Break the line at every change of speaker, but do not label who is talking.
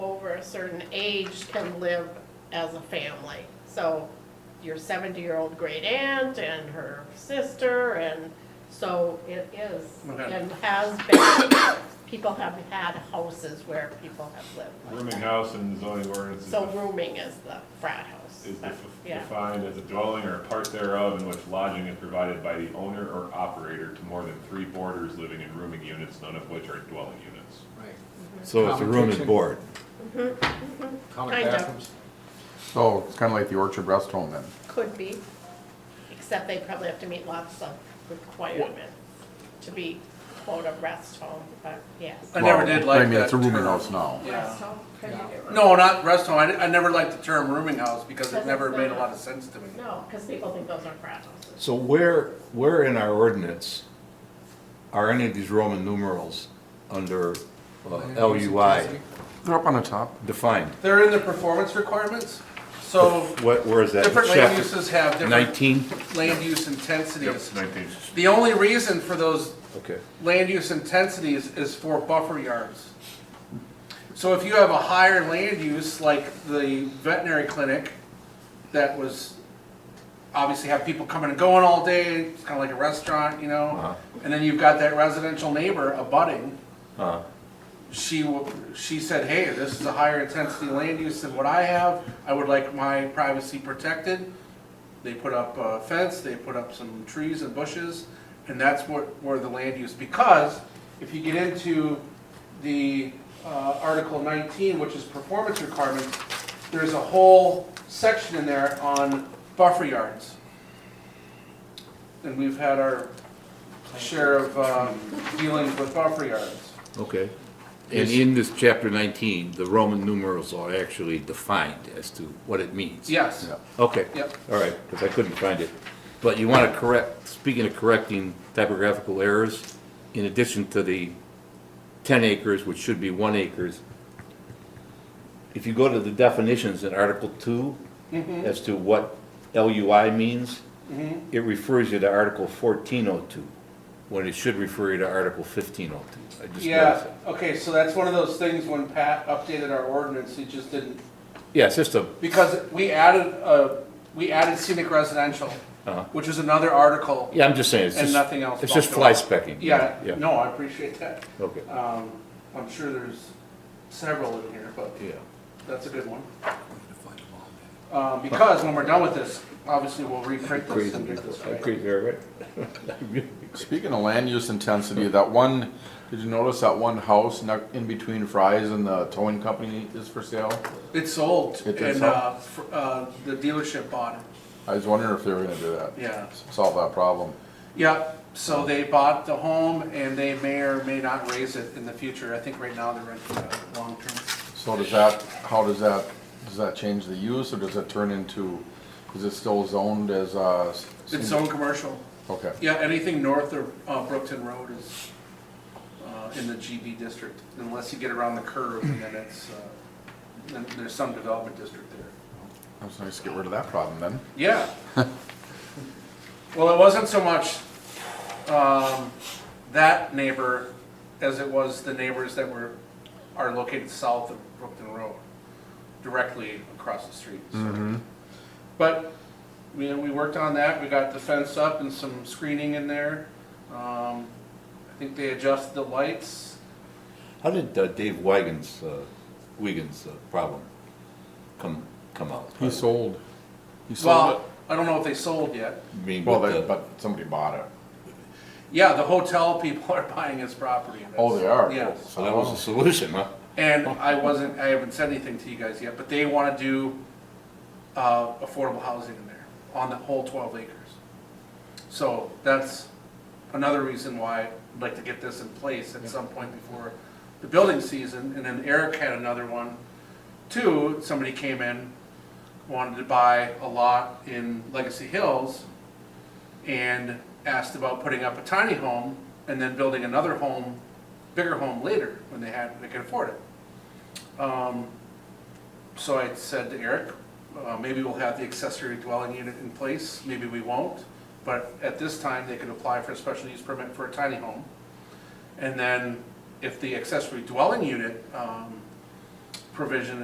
a certain age can live as a family. So your seventy-year-old great aunt and her sister, and so it is,
Okay.
and has been. People have had houses where people have lived. like
Rooming
that.
house in the zoning ordinance is
So
def-
rooming is the frat house.
is def-
Yeah,
defined as a dwelling or a part thereof in which lodging is provided by the owner or operator to more than three boarders living in rooming units, none of which are dwelling units.
Right.
So it's a room and
Competition.
board.
Common
Kind of.
bathrooms?
So Oh, it's kind of like the Orchard Rest Home then?
could be, except they probably have to meet lots of requirements to be quote a rest home, but yes.
I never
Well,
did like that.
I mean, it's a rooming
term.
house now.
Yeah.
home?
No, not rest home. I, di- I never liked the term rooming house because it
Because
never
it's
made a
not.
lot of sense to me.
No, because people think those are frat houses.
So where, where in our ordinance are any of these Roman numerals under uh, LUI
They're up on the top.
defined?
They're in the performance requirements, so
What, where is that?
different land
Chapter
uses have different
Nineteen?
land use
Yep,
intensities.
nineteen.
The only reason for those
Okay.
land use intensities is for buffer yards. So if you have a higher land use, like the veterinary clinic, that was, obviously have people coming and going all day, it's kinda like a restaurant, you know? And then you've got that residential neighbor abutting,
Uh,
she, wa- she said, hey, this is a higher intensity land use than what I have, I would like my privacy protected. They put up a fence, they put up some trees and bushes, and that's what, where the land use, because if you get into the, uh, Article nineteen, which is performance requirements, there's a whole section in there on buffer yards. And we've had our share of, um, dealings with buffer yards.
Okay. And in this chapter nineteen, the Roman numerals are actually defined as to what it means.
Yes.
Okay.
Yep.
All right, because I couldn't find it. But you want to correct, speaking of correcting typographical errors, in addition to the 10 acres, which should be 1 acres, if you go to the definitions in Article 2
Mm-hmm.
as to what LUI means, it refers you to Article 1402, when it should refer you to Article 1502. I just noticed
Yeah,
it.
okay, so that's one of those things when Pat updated our ordinance, he just didn't,
Yeah, it's just a,
because we added, uh, we added scenic residential,
Uh-huh.
which was another article,
yeah, I'm just saying, it's
and
just,
nothing else.
it's just fly
bumped up.
specking.
Yeah,
Yeah,
no, I appreciate that.
okay,
Um, I'm sure there's several in here, but
yeah.
that's a good one. Uh, because when we're done with this, obviously we'll reprint this and get this right.
Crazy, right?
Speaking of land use intensity, that one, did you notice that one house nuck- in between Fry's and the towing company is for sale?
It's sold,
It is
and,
sold?
uh, fr- uh, the dealership bought it,
I was wondering if they were gonna do that.
yeah.
Solve that problem.
Yep, so they bought the home and they may or may not raise it in the future. I think right now they're renting it out long term.
So does that, how does that, does that change the use or does it turn into, is it still zoned as a? s-
It's zone commercial.
Okay,
Yeah, anything north of uh, Brookton Road is uh, in the GB district, unless you get around the curve and then it's, uh, then there's some development district there.
I was nice to get rid of that problem then.
Yeah. Well, it wasn't so much um, that neighbor as it was the neighbors that were, are located south of Brookton Road, directly across the street. so.
Mm-hmm.
But, we, we worked on that, we got the fence up and some screening in there. Um, I think they adjusted the lights.
How did uh, Dave Wigan's, uh, Wigan's uh, problem come, come out?
He sold. He sold
Well, I don't know if they sold yet.
I mean,
it? Well,
with
they-
the-
but somebody bought it.
Yeah, the hotel people are buying his property.
Oh, they are?
Yes.
so that was the
Oh.
solution, huh?
And I wasn't, I haven't said anything to you guys yet, but they wanna do, uh, affordable housing in there, on the whole twelve acres. So that's another reason why I'd like to get this in place at some point before the building season, and then Eric had another one, too, somebody came in, wanted to buy a lot in Legacy Hills, and asked about putting up a tiny home, and then building another home, bigger home later, when they had, they could afford it. Um, So I said to Eric, uh, maybe we'll have the accessory dwelling unit in place, maybe we won't. But at this time, they could apply for a special use permit for a tiny home. And then if the accessory dwelling unit um, provision